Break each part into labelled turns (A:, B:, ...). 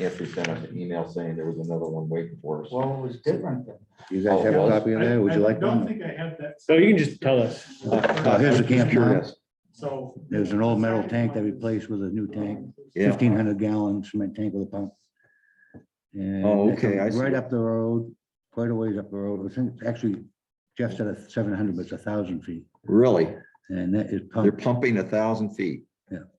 A: Andrew sent us an email saying there was another one waiting for us.
B: Well, it was different then.
C: You
D: Oh,
C: guys have a copy of that? Would you
E: I-
C: like
E: I don't
C: one?
E: think I have that.
F: So you can just tell us.
C: Uh, Here's the camp now.
E: So.
C: There's an old metal tank that we replaced with a new tank,
D: Yeah.
C: fifteen hundred gallon cement tank with a pump. And
D: Oh,
C: it's
D: okay, I see.
C: Right up the road, quite a ways up the road. It's in- Actually, Jeff said it's seven hundred, but it's a thousand feet.
D: Really?
C: And that is
D: They're
C: pumped
D: pumping a thousand feet.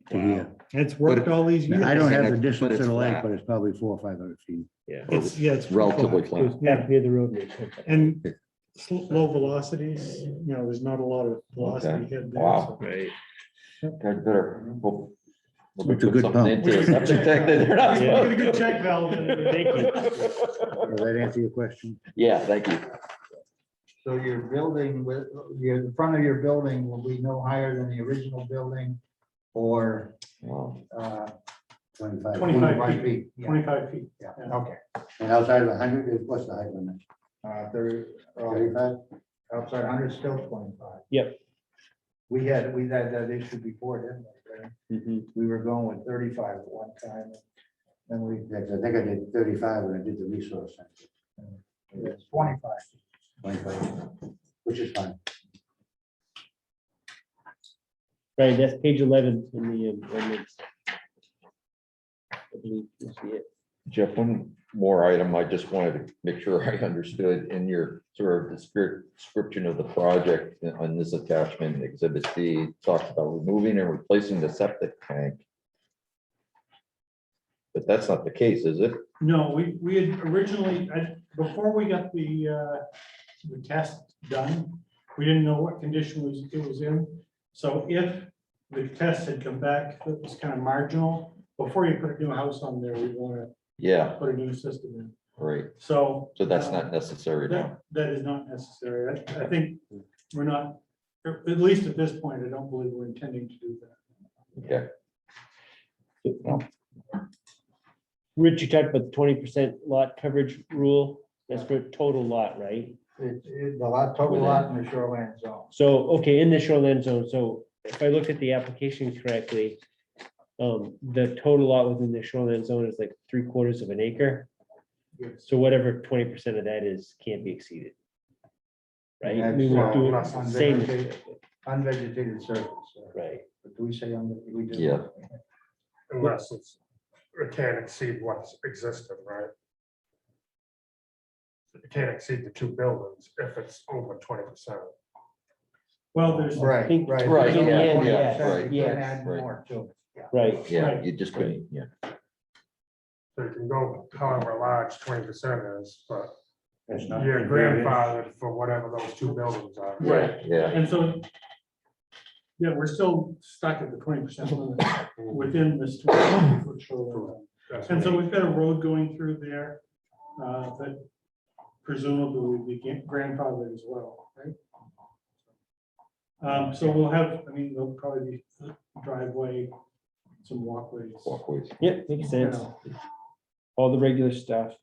C: to here.
E: It's worked all these years.
C: Now, I don't have the
D: But
C: distance to
D: it's
C: the lake,
D: flat.
C: but it's probably four or five hundred feet.
F: Yeah.
E: It's, yeah, it's.
D: Relatively flat.
E: Yeah,
F: near the road.
E: and sl- low velocities, you know, there's not a lot of velocity head there.
A: Wow.
E: so-
F: Right.
A: Guys better hope. hope they
C: It's a
A: put
C: good
A: something
C: pump.
A: into it. Septic tank that they're not
E: We got a
A: supposed
E: good
A: to.
E: check valve in it.
C: Does that answer your question?
A: Yeah, thank you.
B: So your building with, your, the front of your building will be no higher than the original building or,
A: Wow.
B: uh,
C: Twenty-five.
E: 25
B: 25
E: feet.
B: feet. Yeah,
E: Twenty-five feet.
B: yeah, okay.
C: And outside of a hundred, is what's the height limit?
B: Uh, there, uh,
C: Thirty-five?
B: outside hundred still twenty-five.
F: Yep.
B: We had, we had that issue before, didn't we? Barry?
C: Mm-hmm.
B: We were going with thirty-five at one time. Then we,
C: Yes, I think I did thirty-five when I did the resource center,
B: it's twenty-five.
C: twenty-five, which is fine.
F: Right, that's page eleven in the um, ordinance. I believe you see it.
A: Jeff, one more item. I just wanted to make sure I understood in your sort of descrip- description of the project on this attachment, exhibit C, it talks about removing and replacing the septic tank. But that's not the case, is it?
E: No, we, we had originally, I- before we got the, uh, the test done, we didn't know what condition was, it was in. So if the test had come back, that was kind of marginal, before you put a new house on there, we want
A: Yeah,
E: to put a new system in,
A: right.
E: so.
A: So that's
E: uh,
A: not necessary now.
E: That, that is not necessary, I, I think we're not, at at least at this point, I don't believe we're intending to do that.
A: Okay.
F: Rich, you talked about the twenty percent lot coverage rule. That's for total lot, right?
B: It's, it's a lot, total lot in the shoreline zone.
F: So, okay, in the shoreline zone, so if I looked at the application correctly, um, the total lot within the shoreline zone is like three quarters of an acre.
E: Yes.
F: So whatever twenty percent of that is can't be exceeded. Right?
B: That's,
F: We won't
B: uh,
F: do
B: plus
F: it Same,
B: unvegetated- Unvegetated surface, uh,
F: right?
B: but do we say on the, we do.
A: Yeah.
G: Unless it's, it can't exceed what's existing, right? It can't exceed the two buildings if it's over twenty percent.
E: Well, there's,
F: I
B: Right,
F: think-
B: right.
A: Right,
F: In the
A: yeah,
F: end,
A: yeah,
F: yeah,
A: right,
B: You can
F: yeah,
B: add
A: right.
B: more to it. yeah.
F: right.
A: Yeah, you just couldn't, yeah.
G: So you can go however large twenty percent is, but
C: That's not.
G: you're grandfathered for whatever those two buildings are.
E: Right.
A: Yeah,
E: and so. Yeah, we're still stuck at the twenty percent limit within this. 20 foot shoreline zone.
G: That's
E: And so
G: what-
E: we've got a road going through there, uh, that presumably would be gran- grandfathered as well, right? Um, so we'll have, I mean, there'll probably be driveway, some walkways.
A: walkways.
F: Yep, makes sense. All the regular stuff.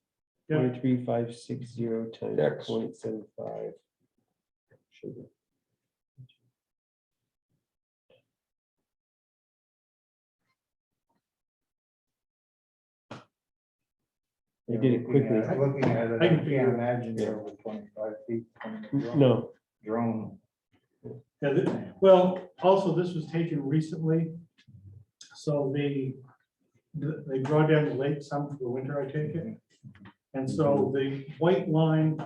E: Yeah,
F: Twenty-three, five, six, zero, times
A: Dex.
F: point seven five. I did it
B: Looking
F: quickly.
B: at- Looking at it,
E: I can
B: I can't
E: figure it out.
B: imagine you're over twenty-five feet. from the drone-
F: No,
B: Drone.
E: yeah, th- well, also, this was taken recently. So they, they draw down the lake some for the winter, I take it. And so the white line.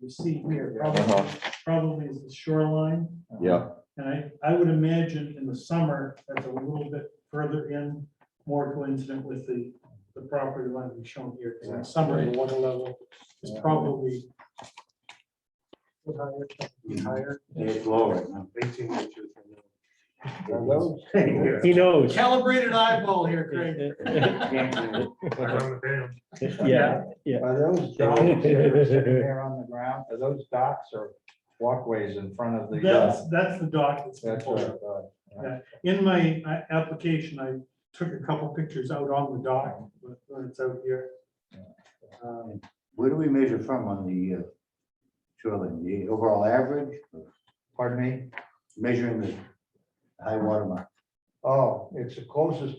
E: You see here, probably,
A: Uh-huh.
E: probably is the shoreline.
A: Yeah,
E: And I, I would imagine in the summer, that's a little bit further in, more coincident with the, the property line we've shown here. 'cause in the summer, the water level is probably higher.
C: It's low right now.
G: Eighteen inches.
B: Those-
F: he knows.
E: Calibrated eyeball here,
G: Around the dam.
F: Yeah,
B: Are those docks that are sitting there on the ground, are those docks or walkways in front of the? uh,
E: That's, that's the dock that's been
B: That's uh, what I
E: pulled.
B: thought.
E: In my uh, application, I took a couple pictures out on the dock, but when it's out here. Um,
C: Where do we measure from on the uh, shoreline, the overall average,
B: Pardon me?
C: measuring the high water mark?
B: Oh, it's the closest